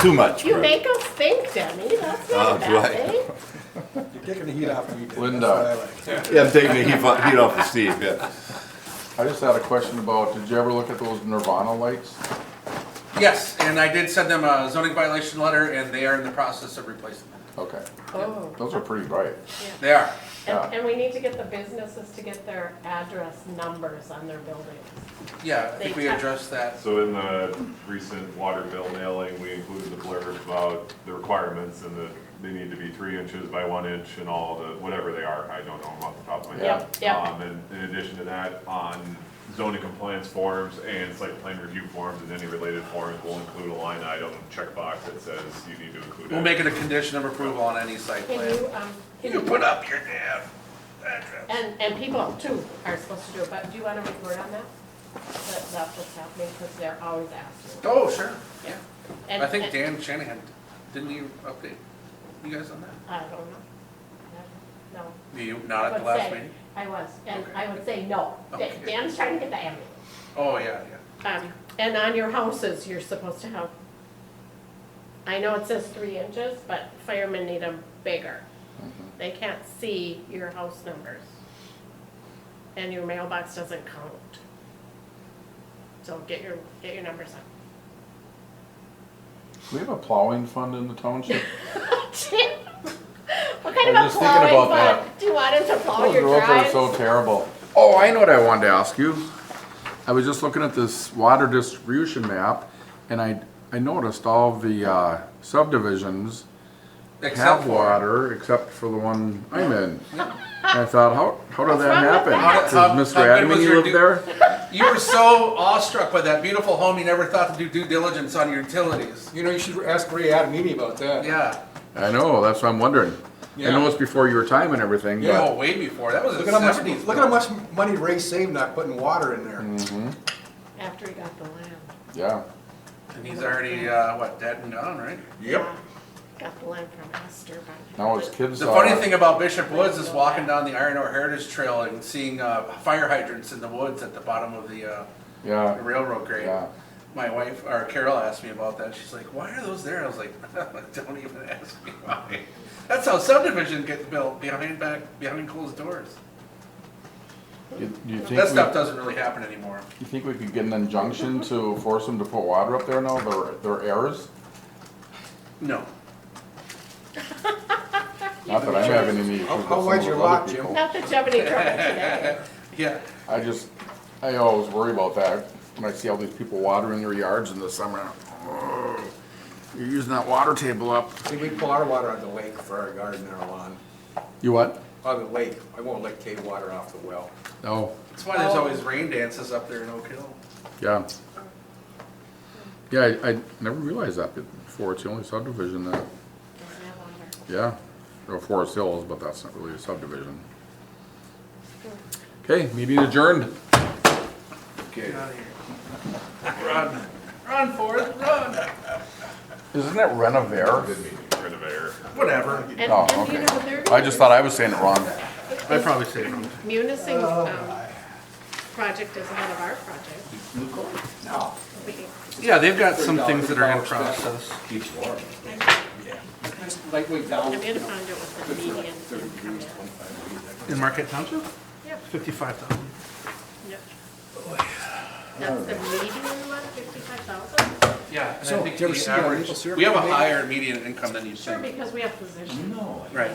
Too much. You Bruce. make us think, Demi, that's Oh, not a bad right. thing. You're taking the heat off me. That's Linda. what I like. Yeah, I'm taking the heat off, heat off of Steve, yeah. I just had a question about, did you ever look at those Nirvana lights? Yes, and I did send them a zoning violation letter, and they are in the process of replacing them. Okay, Oh, those are pretty bright. They are. and, and we need to get the businesses to get their address numbers on their buildings. Yeah, I think They we touch- addressed that. So in the recent water bill mailing, we included the blurb about the requirements and that they need to be three inches by one inch and all the, whatever they are, I don't know them off the top of my head. Yep, yep. Um, And in addition to that, on zoning compliance forms and site plan review forms and any related forms, we'll include a line item checkbox that says you need to include. We'll it. make it a condition of approval on any site Can plan. you, um, can You you- put up your damn address. and, and people too are supposed to do it, but do you wanna report on that? That, that's what's happening, cause they're always asking. Oh, sure, Yeah. yeah. And- I think and- Dan Shanahan, didn't he update you guys on that? I don't know. No. You, I not at would the last say- meeting? I was, and I would say no. Da- Okay. Dan's trying to get the ambulance. Oh, yeah, yeah. Um, and on your houses, you're supposed to have, I know it says three inches, but firemen need them bigger. Mm-hmm. They can't see your house numbers. And your mailbox doesn't count. So get your, get your numbers up. Do we have a plowing fund in the township? Tim, What kind I of was a just thinking plowing about fund? that. Do you want him to plow Those your roads are so drives? terrible. Oh, I know what I wanted to ask you. I was just looking at this water distribution map and I, I noticed all the uh, subdivisions Except have for- water except for the one I'm in. And I thought, how, how did What's that wrong with happen? that? How- Does how- Mr. how good was Adamy your live du- there? You were so awestruck by that beautiful home, you never thought to do due diligence on your utilities. You know, you should ask Ray Adamini about that. Yeah. I know, that's what I'm wondering. I know Yeah. it's before your time and everything, but. Oh, way before. That was in Look the at how much, seventies. look at how much money Ray saved not putting water in there. Mm, After he got the land. Yeah. And he's already, uh, what, dead and gone, right? Yeah. Got the land from Esther. but- Now his kids The are. funny thing about Bishop Woods is walking down the Iron Ore Heritage Trail and seeing, uh, fire hydrants in the woods at the bottom of the, uh, Yeah. railroad grade. Yeah. My wife, or Carol asked me about that. She's like, why are those there? I was like, don't even ask me why. That's how subdivision gets built behind back, behind closed doors. You, you think That stuff we, doesn't really happen anymore. you think we could get an injunction to force them to put water up there now? Their their errors. No. Not that I'm having any issues. How- with how some wide's of your those lot, other Jim? people. Not that you have any trouble today. Yeah. I just, I always worry about that when I see all these people watering their yards in the summer. Oh, You're using that water table up. See, we pull our water out of the lake for our garden and our lawn. You what? Out of the lake. I won't let Kate water off the well. Oh, That's why there's always rain dances up there in Oak Hill. yeah. Yeah, I, I never realized that before. It's the only subdivision that, Doesn't have water. yeah, or Forest Hills, but that's not really a subdivision. Okay, meeting adjourned. Get out of here. Run. Run, Forrest, run. Isn't that Renovare? Rid of air. Whatever. And, Oh, and you okay. know, there I just thought I was saying it wrong. I probably saved him. Munising's, um, project is ahead of our project. No. We- Yeah, they've got some things that are in process. Keeps warm. I'm gonna find out what the median income is. In Marquette Township? Yep, Fifty-five thousand. yep. That's the median one, fifty-five thousand? Yeah, and So, I think did you ever see the how average, maple syrup we have a made? higher median income than you Sure, think. because we have positions. No. Right.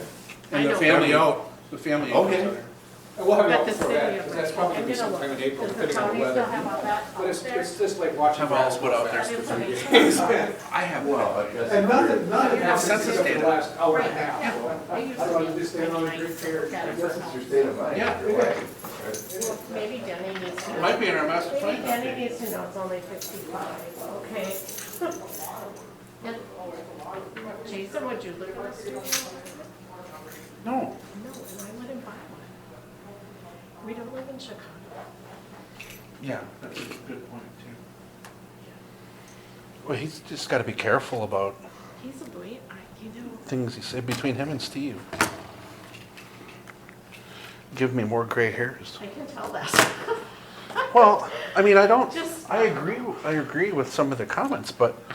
I And the know. family out, the family out. Okay. We'll have it But out the before city of. that, because that's probably gonna be sometime in April, Does the depending on county the still weather. have all that But out it's, there? it's just like watching. Have all split out That there. information. I have Well, one. I guess. And nothing, nothing happens Census except for the data. last hour and a Right, half. so I- They used I to don't be understand all the nice great to care. look at it Yes, for it's Your state of mind. Yeah. Your wife. Maybe Denny needs to. know. Might be in our master Maybe plan. Danny needs to know it's only fifty-five, okay? And- Jason, would you live in a studio? No, No. and I wouldn't buy one. We don't live in Chicago. Yeah, that's a good point too. Well, he's just gotta be careful about He's a boy, I, you know, things he said between him and Steve. Give me more gray hairs. I can tell that. Well, I mean, I don't, Just- I agree, I agree with some of the comments, but